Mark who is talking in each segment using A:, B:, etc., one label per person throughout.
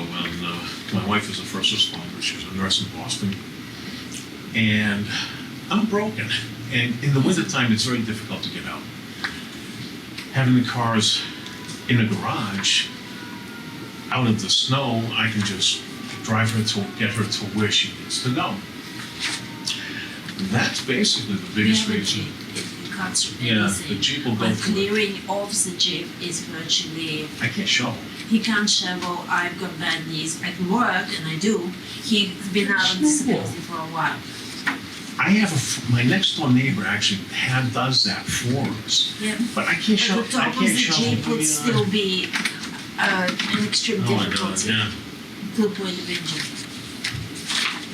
A: um, my wife is a first responder. She's a nurse in Boston. And I'm broken. And in the wintertime, it's very difficult to get out. Having the cars in the garage, out of the snow, I can just drive her to get her to where she needs to go. That's basically the biggest
B: Yeah, the
A: reason.
B: Jeep, It cuts
A: Yeah,
B: everything.
A: the Jeep will go
B: But
A: through it.
B: clearing off the Jeep is virtually,
A: I can't shovel.
B: he can't shovel, I've got bad knees at work, and I do. He's been out of disability for a while.
A: I have a, f- my next door neighbor actually had, does that for us,
B: Yeah.
A: but I can't show,
B: But the
A: I
B: top of
A: can't
B: the
A: show.
B: Jeep would still be uh, an extreme
A: Oh my God,
B: difficulty
A: yeah.
B: to a point of injury.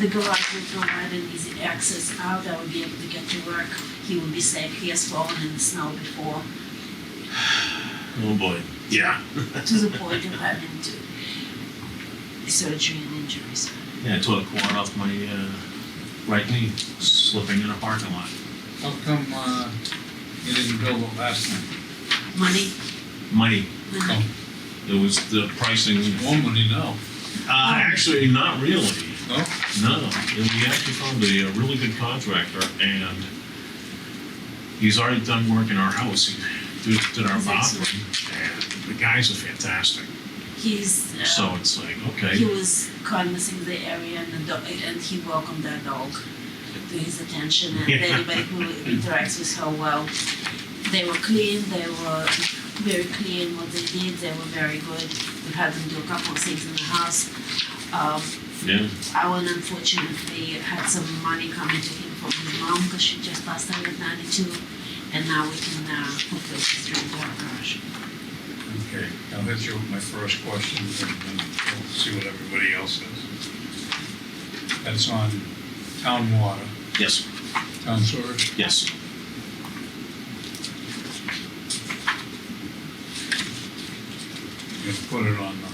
B: The garage would provide an easy access out, I would be able to get to work, he would be safe, he has fallen in the snow before.
A: Oh boy. Yeah.
B: to the point of having to surgery and injuries.
A: Yeah, I tore the quad off my uh, right knee, slipping in a parking lot.
C: How come uh, you didn't build it last time?
B: Money,
A: Money.
B: money.
C: Oh.
A: It was the pricing. Uh,
C: One would you know?
B: Oh.
A: actually, not really.
C: No?
A: No, and we actually found a, a really good contractor, and he's already done work in our house. He did, did our
B: That's
A: bathroom, and the guys are fantastic.
B: He's uh,
A: Oh. So eh? it's like, okay.
B: he was canvassing the area and the dog, and he welcomed that dog to his attention. And
A: Yeah.
B: anybody who interacts with her well, they were clean. They were very clean what they did. They were very good. We had them do a couple of things in the house. Um,
A: Yeah.
B: Alan unfortunately had some money coming to him from his mom because she just passed away at 92, and now we can uh, put those three in our garage.
C: Okay, now hit you with my first question, and then we'll see what everybody else says. That's on town water,
A: Yes.
C: town sewer.
A: Yes.
C: You put it on the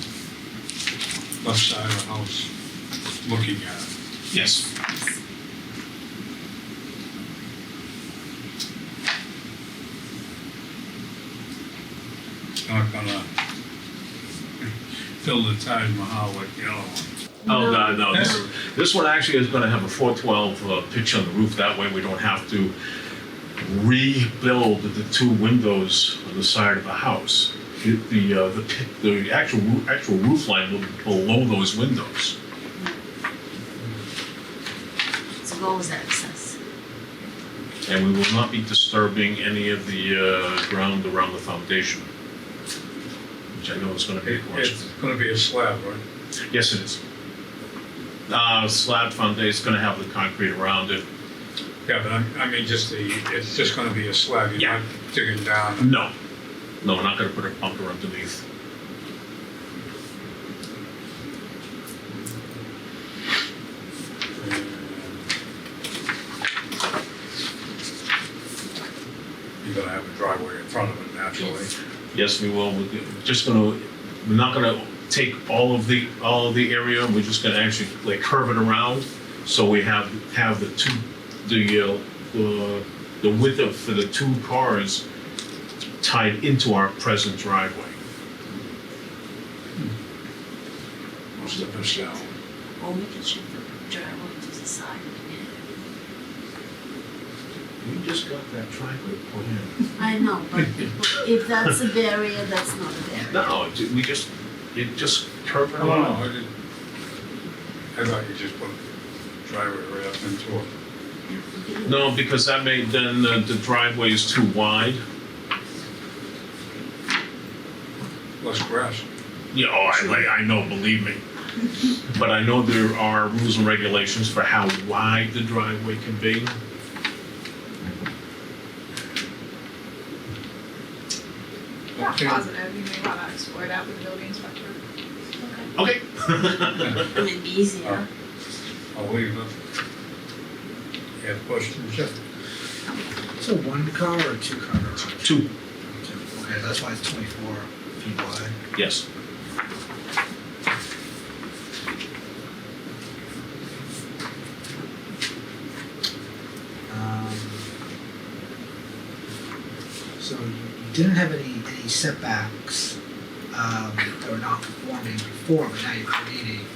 C: left side of the house, looking at it.
A: Yes.
C: It's not gonna fill the Taj Mahal like the other one.
A: Oh,
B: No.
A: no, no. This, this one actually is going to have a 412 uh, pitch on the roof. That way we don't have to rebuild the two windows on the side of the house. The, the, uh, the, pit- the actual, roo- actual roof line will be below those windows.
B: So go with access.
A: And we will not be disturbing any of the uh, ground around the foundation, which I know is going to be a
C: It- It's gonna be a slab, right?
A: Yes, it is. Uh, slab foundation is gonna have the concrete around it.
C: Yeah, but I, I mean, just the, it's just gonna be a slab, you're
A: Yeah.
C: not digging down.
A: No, no, we're not gonna put a bunker underneath.
C: You're gonna have a driveway in front of it naturally.
A: Yes, we will. We're just gonna, we're not gonna take all of the, all of the area. We're just gonna actually like curve it around. So we have, have the two, the, uh, the- the width of, for the two cars tied into our present driveway.
C: Most of it's down.
B: Or we can shift the driveway to the side.
A: We just got that driveway put in.
B: I know, but if that's a barrier, that's not a barrier.
A: No, it ju- we just, it just curved
C: I don't know,
A: around.
C: I didn't, I thought you just put driveway right up into it.
A: No, because that made, then the the driveway is too wide.
C: Less grass.
A: Yeah, oh, I, like- I know, believe me. But I know there are rules and regulations for how wide the driveway can be.
D: Not
C: Okay.
D: positive, you may wanna explore that with the building inspector.
A: Okay.
B: I mean, it'd be easier.
C: I'll leave it. You have questions, Jeff?
E: So one car or two car garage?
A: Two,
E: Okay, that's why it's twenty-four feet wide.
A: yes.
E: Um, So you you didn't have any, any setbacks, um, that were non-conforming before, but now you're creating